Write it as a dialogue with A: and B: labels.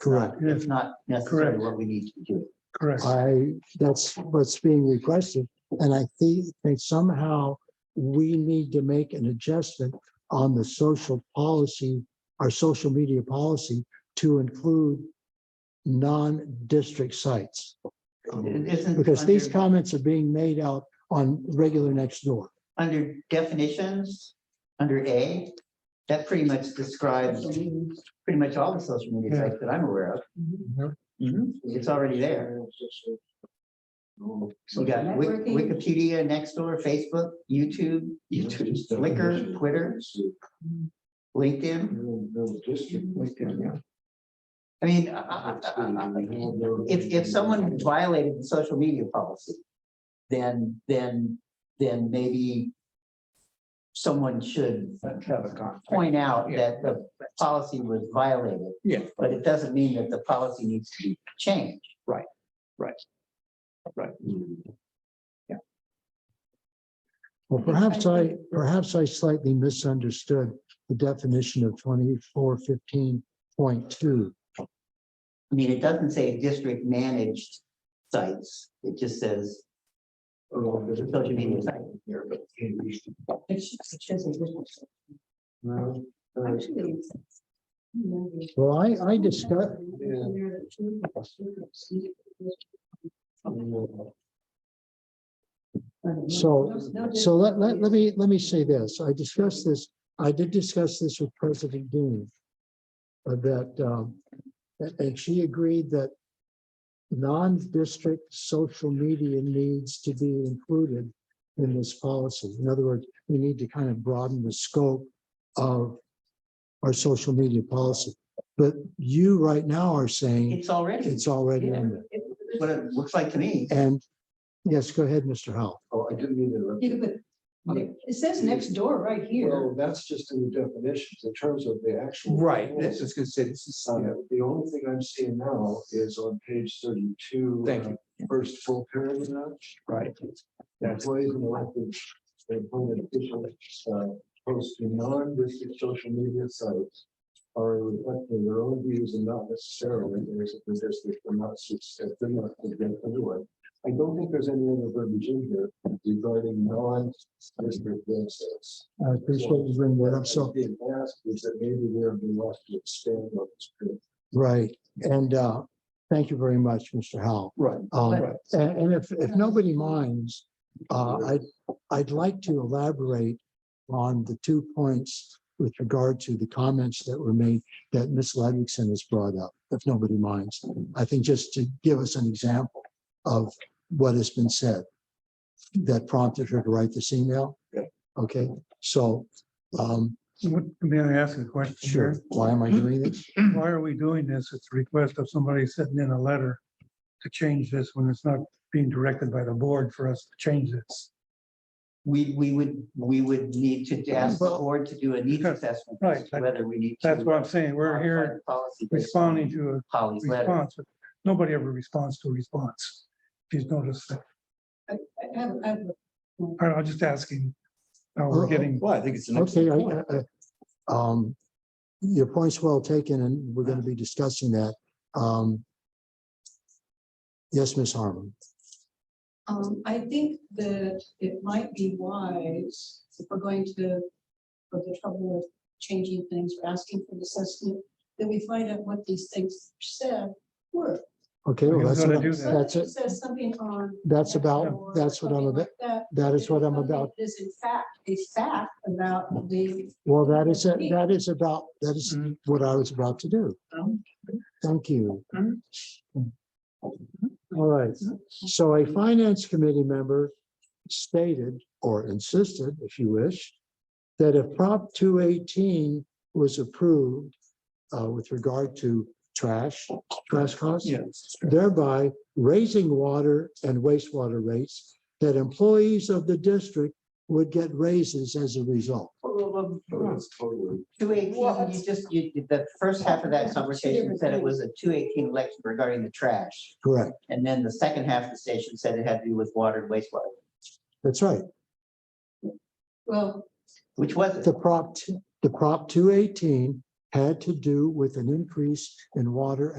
A: Correct,
B: not- It's not necessarily
C: Correct.
B: what we need to do.
C: Correct.
A: I, that's what's being requested. And I think, think somehow we need to make an adjustment on the social policy, our social media policy to include non-district sites.
C: Um,
B: It isn't
A: Because these
B: under-
A: comments are being made out on regular next door.
B: Under definitions, under A, that pretty much describes pretty much all the social media sites that I'm aware of.
C: Yep.
A: Mm-hmm.
B: Mhm, It's already there. You got Wik-
D: Networking.
B: Wikipedia, Nextdoor, Facebook, YouTube, YouTube, Flickr, Twitter, LinkedIn. LinkedIn, yeah. I mean, I- I- I- I- if, if someone violated the social media policy, then, then, then maybe someone should point out that the policy was violated.
E: Yeah.
B: But it doesn't mean that the policy needs to be changed.
A: Well, perhaps I, perhaps I slightly misunderstood the definition of twenty-four fifteen point two.
B: I mean, it doesn't say district managed sites. It just says social media site.
D: Actually, it's-
A: Well, I, I discussed, So- So let, let, let me, let me say this. I discussed this, I did discuss this with President Dean. uh, That, um, a- and she agreed that non-district social media needs to be included in this policy. In other words, we need to kind of broaden the scope of our social media policy. But you right now are saying
B: It's already,
A: it's already in there.
B: what it looks like to me.
A: And yes, go ahead, Mr. Howell.
E: Oh, I didn't mean to interrupt.
D: Yeah, but It says next door right here.
E: Well, that's just in the definitions, in terms of the actual.
F: Right, Um, that's
E: rules.
F: just gonna say, this is,
E: Uh,
F: yeah,
E: The only thing I'm seeing now is on page thirty-two.
F: Thank
E: uh,
F: you.
E: First full paragraph.
F: right.
E: Employees and elected appointed officials uh, post to non-district social media sites are reflecting their own views and not necessarily theirs of the district and not suits that they're not against anyone. I don't think there's any other verbiage in here regarding non-district websites.
A: I
F: Uh,
A: appreciate you bringing that up. So
E: Being asked is that maybe there'd be left to expand on this. group.
A: Right, and uh, thank you very much, Mr. Howell.
F: Right,
A: Um,
F: right.
A: And and if, if nobody minds, uh, I'd, I'd like to elaborate on the two points with regard to the comments that were made that Ms. Ludwigson has brought up, if nobody minds. I think just to give us an example of what has been said that prompted her to write this email.
F: Yeah.
A: Okay, so, um,
C: What- May I ask a question?
A: sure, why am I doing this?
C: here?
D: Mm-hmm.
C: Why are we doing this? It's a request of somebody sitting in a letter to change this when it's not being directed by the board for us to change this.
B: We, we would, we would need to ask the board to do a needs assessment. as to
C: Right, that-
B: Whether we need. to
C: That's what I'm saying. We're
B: modify
C: here
B: the policy based
C: responding
B: on
C: to a
B: Polly's uh, letter.
C: response. but Nobody ever responds to a response. If you've noticed, that.
D: I have- I have-
C: I- I'm just asking. Now we're getting,
F: Well, I think it's an
A: Okay,
F: excellent point.
A: I- I, I, um, your point's well taken and we're gonna be discussing that. Um. Yes, Ms. Harmon,
D: Um, I think that it might be wise, if we're going to, for the trouble of changing things, or asking for the assessment, that we find out what these things said were.
A: okay,
C: We're
A: well, that's,
C: gonna
A: what I-
C: do that.
A: that's
D: Somebody
A: it,
D: Says something on.
A: that's
D: or
A: about, that's what I'm
D: something
A: about,
D: like That
A: that is what I'm about.
D: It Is in fact a fact about the.
A: Well, that is, it. that is about, that is
C: Mhm.
A: what I was about to do. Thank you.
C: Mhm.
A: All right, so a finance committee member stated or insisted, if you wish, that if Prop two eighteen was approved uh, with regard to trash, trash costs,
C: yes.
A: thereby raising water and wastewater rates, that employees of the district would get raises as a result.
E: So that's totally.
B: Two eighteen, you just, you, the first half of that conversation said it was a two eighteen election regarding the trash.
A: Correct,
B: And then the second half of the station said it had to do with water and wastewater,
A: that's right.
D: Well,
B: which wasn't.
A: The Prop, t- the Prop two eighteen had to do with an increase in water